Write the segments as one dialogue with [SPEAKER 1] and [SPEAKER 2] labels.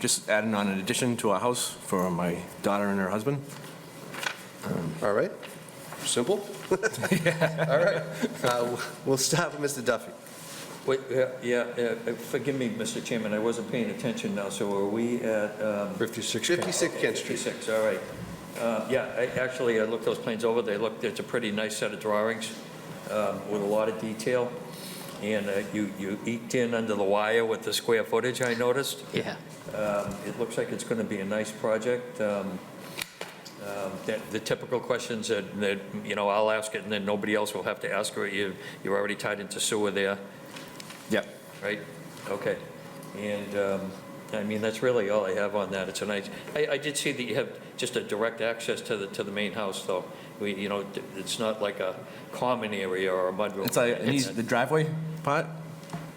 [SPEAKER 1] Just adding on an addition to our house for my daughter and her husband.
[SPEAKER 2] All right, simple. All right, Uh, we'll start with Mr. Duffy.
[SPEAKER 3] Wait, yeah, yeah, uh, forgive me, Mr. Chairman, I wasn't paying attention now, so are we at? um,
[SPEAKER 4] 56
[SPEAKER 2] 56 Kent Street.
[SPEAKER 3] 56, all right. Uh, Yeah, I- actually, I looked those plans over, they look, it's a pretty nice set of drawings um, with a lot of detail, and uh, you you eked in under the wire with the square footage, I noticed.
[SPEAKER 5] Yeah.
[SPEAKER 3] Um, It looks like it's going to be a nice project. Um, um, that- The typical questions that, that, you know, I'll ask it, and then nobody else will have to ask her. You- You're already tied into sewer there.
[SPEAKER 1] Yep.
[SPEAKER 3] Right, okay. And, um, I mean, that's really all I have on that. It's a nice, I, I did see that you have just a direct access to the, to the main house, though. We, you know, d- it's not like a common area or a mudroom.
[SPEAKER 1] It's like, it needs the driveway part?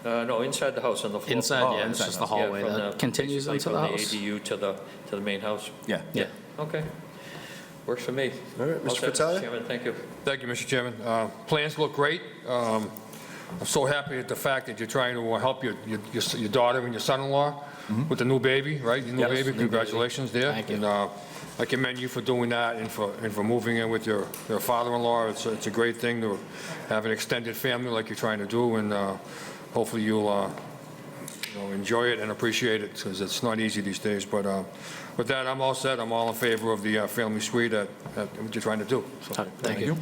[SPEAKER 3] Uh, no, inside the house on the floor.
[SPEAKER 5] Inside,
[SPEAKER 1] Oh,
[SPEAKER 5] yeah, it's
[SPEAKER 1] inside
[SPEAKER 5] just the
[SPEAKER 1] house.
[SPEAKER 5] hallway
[SPEAKER 3] Yeah, from
[SPEAKER 5] that
[SPEAKER 3] the-
[SPEAKER 5] continues into
[SPEAKER 3] basically
[SPEAKER 5] the house.
[SPEAKER 3] From the ADU to the, to the main house.
[SPEAKER 1] Yeah.
[SPEAKER 5] Yeah.
[SPEAKER 3] Okay. Works for me.
[SPEAKER 2] All right, Mr.
[SPEAKER 3] All set,
[SPEAKER 2] Fratelli?
[SPEAKER 3] Chairman, thank you.
[SPEAKER 4] Thank you, Mr. Chairman. Uh, Plans look great. Um, I'm so happy at the fact that you're trying to uh, help your, your- your s- your daughter and your son-in-law
[SPEAKER 5] Mm-hmm.
[SPEAKER 4] with the new baby, right? Your new
[SPEAKER 1] Yes,
[SPEAKER 4] baby, congratulations there.
[SPEAKER 5] Thank you.
[SPEAKER 4] And uh, I commend you for doing that and for, and for moving in with your, your father-in-law. It's, a- it's a great thing to have an extended family like you're trying to do, and uh, hopefully you'll, uh, you know, enjoy it and appreciate it, because it's not easy these days. But uh, with that, I'm all set. I'm all in favor of the uh, family suite that, that you're trying to do. So,
[SPEAKER 5] Uh, Thank you.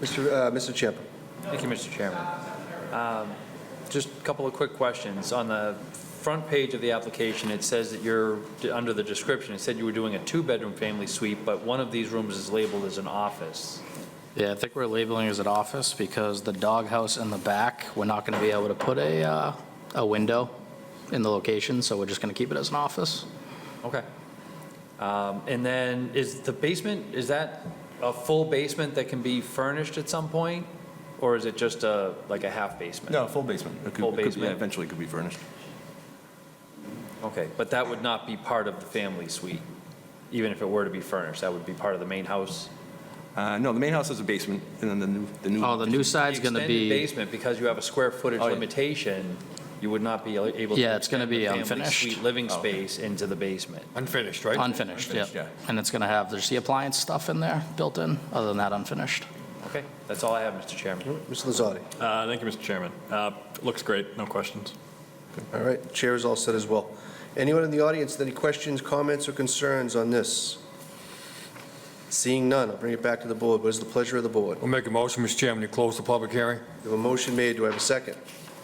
[SPEAKER 2] Mr. uh, Mr. Champa.
[SPEAKER 6] Thank you, Mr. Chairman. Um, Just a couple of quick questions. On the front page of the application, it says that you're, under the description, it said you were doing a two-bedroom family suite, but one of these rooms is labeled as an office.
[SPEAKER 5] Yeah, I think we're labeling it as an office because the doghouse in the back, we're not going to be able to put a, uh, a window in the location, so we're just going to keep it as an office.
[SPEAKER 6] Okay. Um, And then, is the basement, is that a full basement that can be furnished at some point? Or is it just a, like a half basement?
[SPEAKER 1] No, full basement. It could-
[SPEAKER 6] Full
[SPEAKER 1] it could be-
[SPEAKER 6] basement.
[SPEAKER 1] Eventually could be furnished.
[SPEAKER 6] Okay, but that would not be part of the family suite, even if it were to be furnished? That would be part of the main house?
[SPEAKER 1] Uh, no, the main house is a basement and then the new, the new.
[SPEAKER 5] Oh, the new side's going to
[SPEAKER 6] The
[SPEAKER 5] be,
[SPEAKER 6] extended basement, because you have a square footage
[SPEAKER 1] Oh, yeah.
[SPEAKER 6] limitation, you would not be able to.
[SPEAKER 5] Yeah, it's
[SPEAKER 6] extend
[SPEAKER 5] gonna
[SPEAKER 6] the
[SPEAKER 5] be
[SPEAKER 6] family
[SPEAKER 5] unfinished. Oh,
[SPEAKER 6] suite Living space into the basement.
[SPEAKER 4] Unfinished, right?
[SPEAKER 5] unfinished,
[SPEAKER 1] Unfinished,
[SPEAKER 5] yeah.
[SPEAKER 1] yeah.
[SPEAKER 5] And it's going to have, there's the appliance stuff in there built in, other than that, unfinished.
[SPEAKER 6] Okay, that's all I have, Mr. Chairman.
[SPEAKER 2] Mr. Lazardi.
[SPEAKER 7] Uh, Thank you, Mr. Chairman. Uh, Looks great, no questions.
[SPEAKER 2] All right, chair is all set as well. Anyone in the audience, with any questions, comments, or concerns on this? Seeing none, I'll bring it back to the board. What is the pleasure of the board?
[SPEAKER 4] We'll make a motion, Mr. Chairman, to close the public hearing.
[SPEAKER 2] We have a motion made, do I have a second?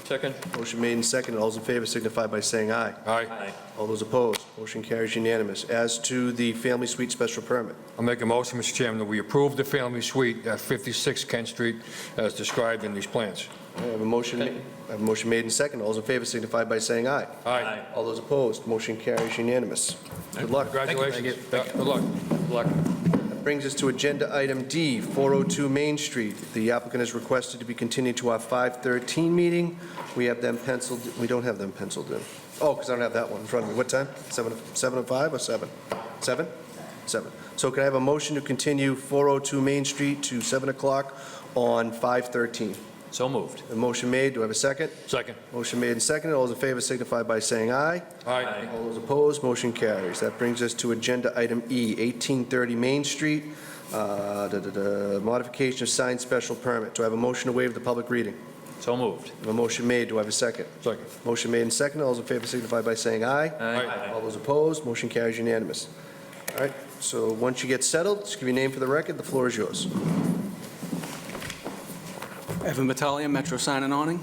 [SPEAKER 3] Second?
[SPEAKER 2] Motion made and seconded, all those in favor signify by saying aye.
[SPEAKER 4] Aye.
[SPEAKER 2] All those opposed, motion carries unanimous. As to the family suite special permit,
[SPEAKER 4] I'll make a motion, Mr. Chairman, that we approve the family suite at 56 Kent Street as described in these plans.
[SPEAKER 2] I have a motion, I have a motion made and seconded, all those in favor signify by saying aye.
[SPEAKER 4] Aye.
[SPEAKER 2] All those opposed, motion carries unanimous. Good luck.
[SPEAKER 4] Congratulations. Yeah, Good luck.
[SPEAKER 3] Good luck.
[SPEAKER 2] Brings us to Agenda Item D, 402 Main Street. The applicant has requested to be continued to our 5:13 meeting. We have them penciled, we don't have them penciled in. Oh, because I don't have that one in front of me. What time? Seven, seven and five or seven? Seven? Seven. So can I have a motion to continue 402 Main Street to 7 o'clock on 5:13?
[SPEAKER 6] So moved.
[SPEAKER 2] A motion made, do I have a second?
[SPEAKER 4] Second.
[SPEAKER 2] Motion made and seconded. All those in favor signify by saying aye.
[SPEAKER 4] Aye.
[SPEAKER 2] All those opposed, motion carries. That brings us to Agenda Item E, 1830 Main Street, uh, da, da, da, modification of signed special permit. Do I have a motion to waive the public reading?
[SPEAKER 6] So moved.
[SPEAKER 2] A motion made, do I have a second?
[SPEAKER 4] Second.
[SPEAKER 2] Motion made and second, all those in favor signify by saying aye.
[SPEAKER 4] Aye.
[SPEAKER 2] All those opposed, motion carries unanimous. All right, so once you get settled, just give your name for the record, the floor is yours.
[SPEAKER 8] Evan Battaglia, Metro Sign and Awning.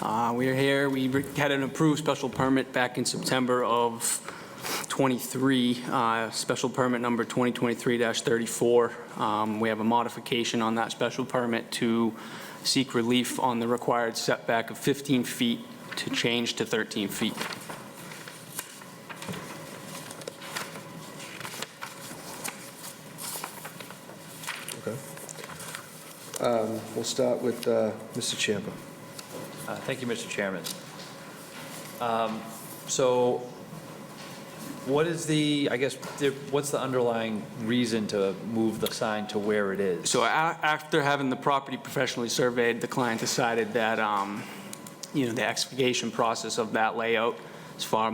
[SPEAKER 8] Uh, We are here, we re- had an approved special permit back in September of '23, special permit number 2023-34. Um, We have a modification on that special permit to seek relief on the required setback of 15 feet to change to 13 feet.
[SPEAKER 2] Um, We'll start with uh, Mr. Champa.
[SPEAKER 6] Uh, Thank you, Mr. Chairman. Um, So what is the, I guess, the- what's the underlying reason to move the sign to where it is?
[SPEAKER 8] So a- after having the property professionally surveyed, the client decided that, um, you know, the excavation process of that layout as far